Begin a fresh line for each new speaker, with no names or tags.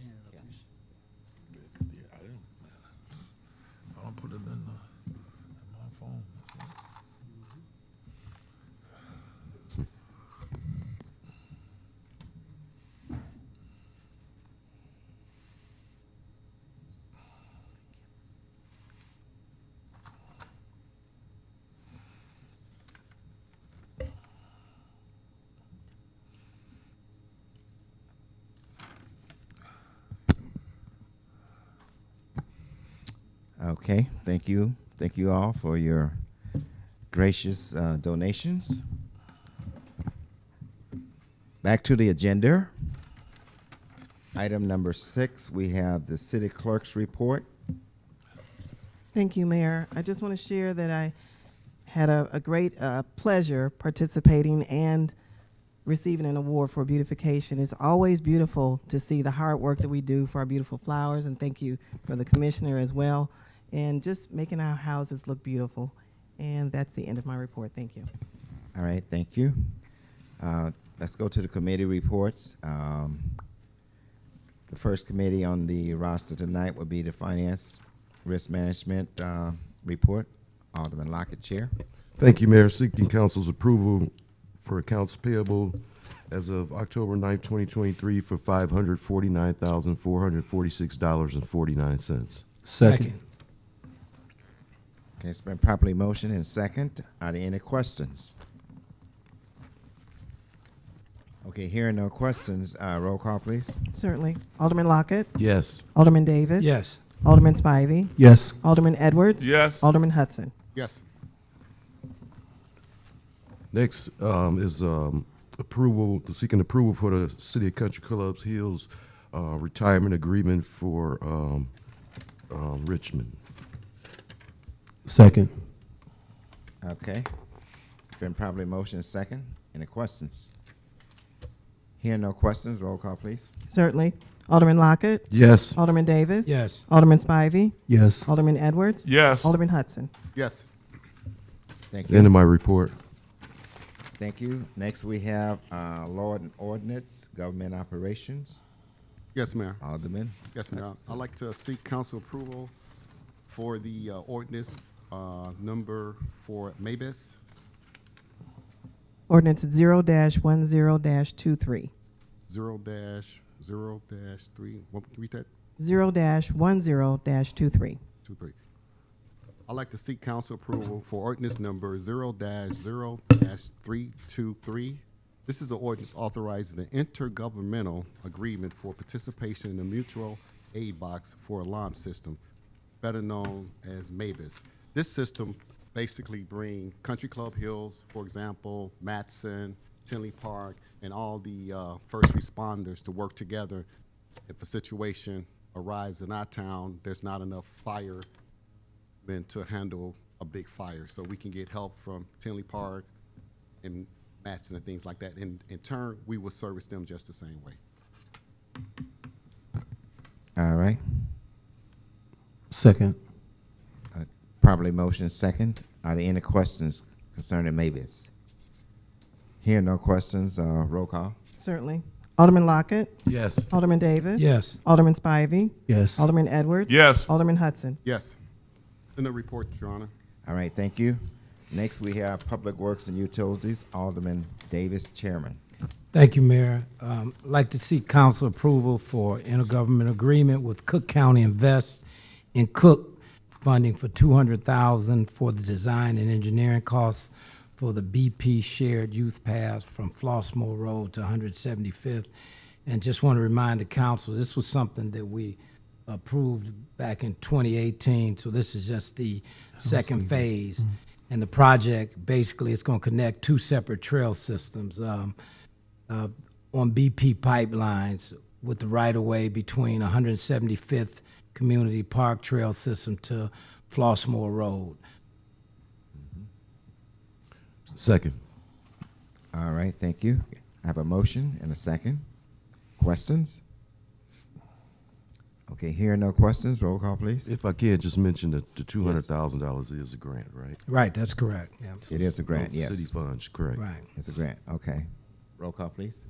Yeah.
Yeah, I didn't. I don't put it in, the, in my phone. That's it.
Okay, thank you. Thank you all for your gracious uh, donations. Back to the agenda. Item number six, we have the city clerk's report.
Thank you, Mayor. I just want to share that I had a, a great uh, pleasure participating and receiving an award for beautification. It's always beautiful to see the hard work that we do for our beautiful flowers, and thank you for the commissioner as well, and just making our houses look beautiful. And that's the end of my report. Thank you.
All right, thank you. Uh, Let's go to the committee reports. Um, The first committee on the roster tonight will be the Finance Risk Management uh, Report. Alderman Lockett, Chair.
Thank you, Mayor. Seeking council's approval for accounts payable as of October 9th, 2023 for $549,446.49.
Second.
Okay, it's been properly motioned and second. Are there any questions? Okay, hearing no questions, uh, roll call, please.
Certainly. Alderman Lockett,
Yes.
Alderman Davis.
Yes.
Alderman Spivey,
Yes.
Alderman Edwards.
Yes.
Alderman Hudson.
Yes.
Next um, is um, approval, seeking approval for the City of Country Clubs Hills uh, retirement agreement for um, um, Richmond.
Second.
Okay. It's been properly motioned and second. Any questions? Hearing no questions, roll call, please.
Certainly. Alderman Lockett,
Yes.
Alderman Davis.
Yes.
Alderman Spivey,
Yes.
Alderman Edwards.
Yes.
Alderman Hudson.
Yes. Thank
End
you.
of my report.
Thank you. Next, we have uh, Law and Ordinance, Government Operations.
Yes, Mayor.
Alderman.
Yes, Mayor. I'd like to seek council approval for the uh, ordinance uh, number for Mavis.
Ordinance zero dash one zero dash two three.
Zero dash, zero dash three, what, read that,
Zero dash one zero dash two three.
two, three. I'd like to seek council approval for ordinance number zero dash zero dash three two three. This is an ordinance authorizing the intergovernmental agreement for participation in the mutual aid box for alarm system, better known as MABUS. This system basically bring Country Club Hills, for example, Matson, Tinley Park, and all the uh, first responders to work together if a situation arrives in our town, there's not enough fire men to handle a big fire. So we can get help from Tinley Park and Matson and things like that. And in turn, we will service them just the same way.
All right.
Second.
Uh, Properly motion second. Are there any questions concerning Mavis? Here, no questions, uh, roll call.
Certainly. Alderman Lockett,
Yes.
Alderman Davis.
Yes.
Alderman Spivey,
Yes.
Alderman Edwards.
Yes.
Alderman Hudson.
Yes. In the report, Your Honor.
All right, thank you. Next, we have Public Works and Utilities, Alderman Davis, Chairman.
Thank you, Mayor. Um, I'd like to seek council approval for intergovernment agreement with Cook County Invest in Cook funding for two hundred thousand for the design and engineering costs for the BP Shared Youth Path from Flossmoor Road to one hundred seventy-fifth. And just want to remind the council, this was something that we approved back in 2018, so this is just the second phase. And the project, basically, it's going to connect two separate trail systems um, uh, on BP pipelines with the right-of-way between 175th Community Park Trail System to Flossmoor Road.
Second.
All right, thank you. I have a motion and a second. Questions? Okay, here, no questions, roll call, please.
If I can, just mention that the two hundred thousand dollars is a grant, right?
Right, that's correct, yeah,
It is a grant,
Oh, City
yes.
funds, correct.
right.
It's a grant, okay. Roll call, please.